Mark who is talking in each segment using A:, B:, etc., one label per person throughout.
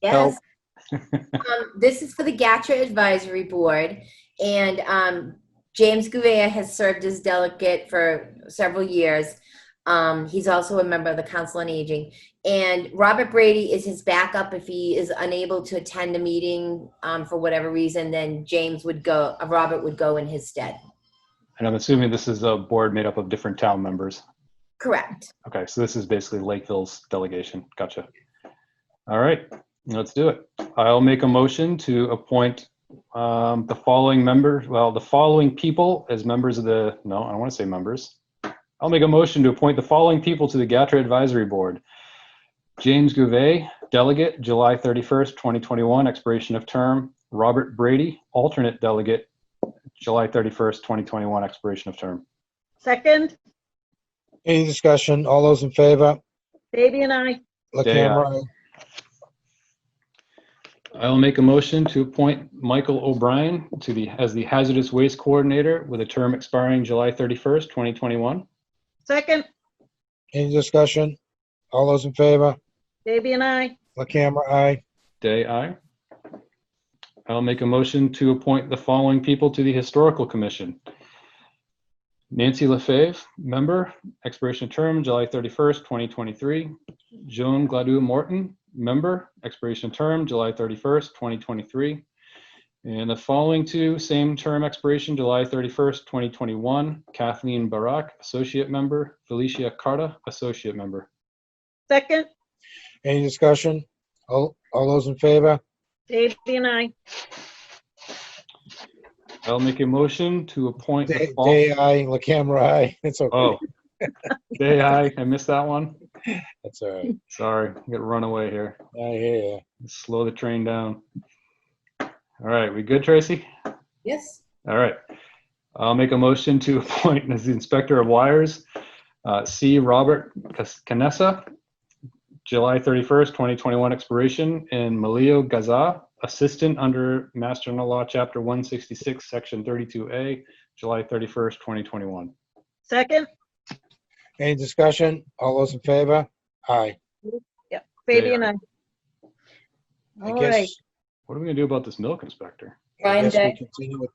A: Yes.
B: Help.
A: Um, This is for the GATRA Advisory Board, and um, James Gouveia has served as delegate for several years. Um, He's also a member of the Council on Aging. And Robert Brady is his backup. If he is unable to attend a meeting um, for whatever reason, then James would go, uh, Robert would go in his stead.
B: And I'm assuming this is a board made up of different town members.
A: Correct.
B: Okay, so this is basically Lakeville's delegation. Gotcha. All right, let's do it. I'll make a motion to appoint um, the following members, well, the following people as members of the, no, I don't want to say members. I'll make a motion to appoint the following people to the GATRA Advisory Board. James Gouvet, delegate, July 31st, 2021, expiration of term. Robert Brady, alternate delegate, July 31st, 2021, expiration of term.
C: Second,
D: Any discussion? All those in favor?
C: Baby and I.
D: La
B: Day
D: Camera, aye.
B: I'll make a motion to appoint Michael O'Brien to the, as the Hazardous Waste Coordinator with a term expiring July 31st, 2021.
C: Second,
D: Any discussion? All those in favor?
C: Baby and I.
D: La Camera, aye.
B: Day, aye. I'll make a motion to appoint the following people to the Historical Commission. Nancy LaFave, member, expiration of term July 31st, 2023. Joan Gladue Morton, member, expiration of term July 31st, 2023. And the following two, same term expiration July 31st, 2021. Kathleen Barak, associate member. Felicia Carta, associate member.
C: Second,
D: Any discussion? All, all those in favor?
C: Baby and I.
B: I'll make a motion to appoint. the
D: Day,
B: fol-
D: Day, aye. La Camera, aye. It's okay.
B: Oh, day I, I missed that one.
D: That's all right.
B: Sorry, I got run away here.
D: I hear you.
B: Slow the train down. All right, we good, Tracy?
A: Yes.
B: All right. I'll make a motion to appoint as the inspector of wires, uh, C. Robert Cas- Canessa, July 31st, 2021 expiration, and Malio Gaza, assistant under Master and Law, Chapter 166, Section 32A, July 31st, 2021.
C: Second,
D: Any discussion? All those in favor? Aye.
C: Baby and I.
D: I
C: All
D: guess-
C: right,
B: What are we gonna do about this milk inspector?
D: I
A: Brian
D: guess we
A: Day.
D: continue with-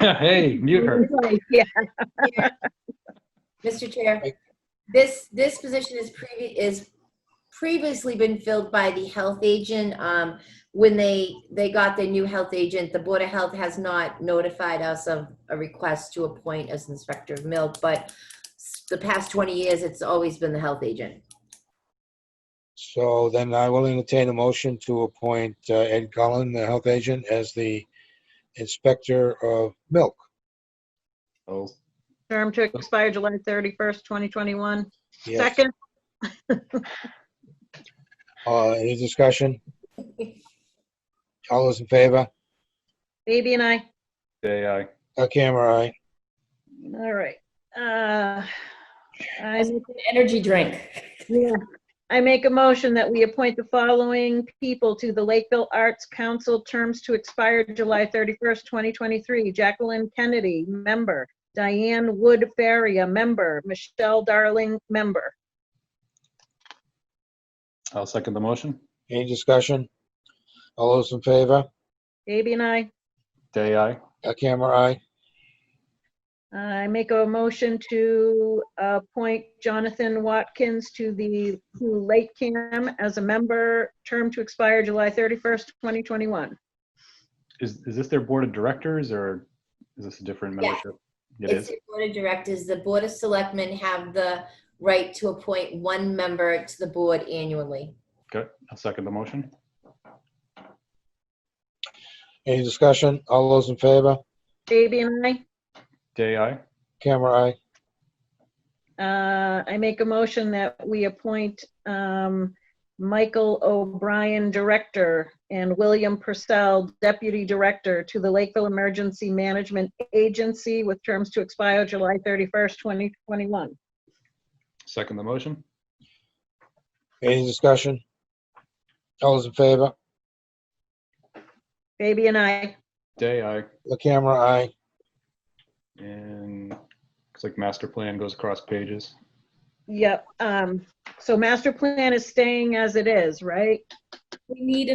B: Hey, mute her.
C: yeah,
A: Mr. Chair, this, this position is previ, is previously been filled by the health agent. Um, when they, they got their new health agent, the Board of Health has not notified us of a request to appoint as inspector of milk, but s- the past twenty years, it's always been the health agent.
D: So then I will entertain a motion to appoint uh, Ed Cullen, the health agent, as the inspector of milk.
B: Oh,
C: term to expire July 31st, 2021.
D: Yes.
C: Second,
D: Uh, any discussion? All those in favor?
C: Baby and I.
B: Day I.
D: La Camera, aye.
C: All right. Uh, I
A: Energy drink.
C: Yeah, I make a motion that we appoint the following people to the Lakeville Arts Council, terms to expire July 31st, 2023. Jacqueline Kennedy, member. Diane Wood Faria, member. Michelle Darling, member.
B: I'll second the motion.
D: Any discussion? All those in favor?
C: Baby and I,
B: Day I.
D: A camera aye.
C: I make a motion to appoint Jonathan Watkins to the to Lake Cam as a member, term to expire July 31st, 2021.
B: Is, is this their board of directors or is this a different
A: Yeah.
B: membership? It
A: It's
B: is.
A: the Board of Directors. The Board of Selectmen have the right to appoint one member to the board annually.
B: Good. I'll second the motion.
D: Any discussion? All those in favor?
C: Baby and I?
B: Day I.
D: Camera aye.
C: Uh, I make a motion that we appoint um, Michael O'Brien Director and William Purcell Deputy Director to the Lakeville Emergency Management Agency with terms to expire July 31st, 2021.
B: Second the motion.
D: Any discussion? All those in favor?
C: Baby and I,
B: Day I.
D: The camera aye.
B: And looks like master plan goes across pages.
C: yep. um, So master plan is staying as it is, right?
A: We need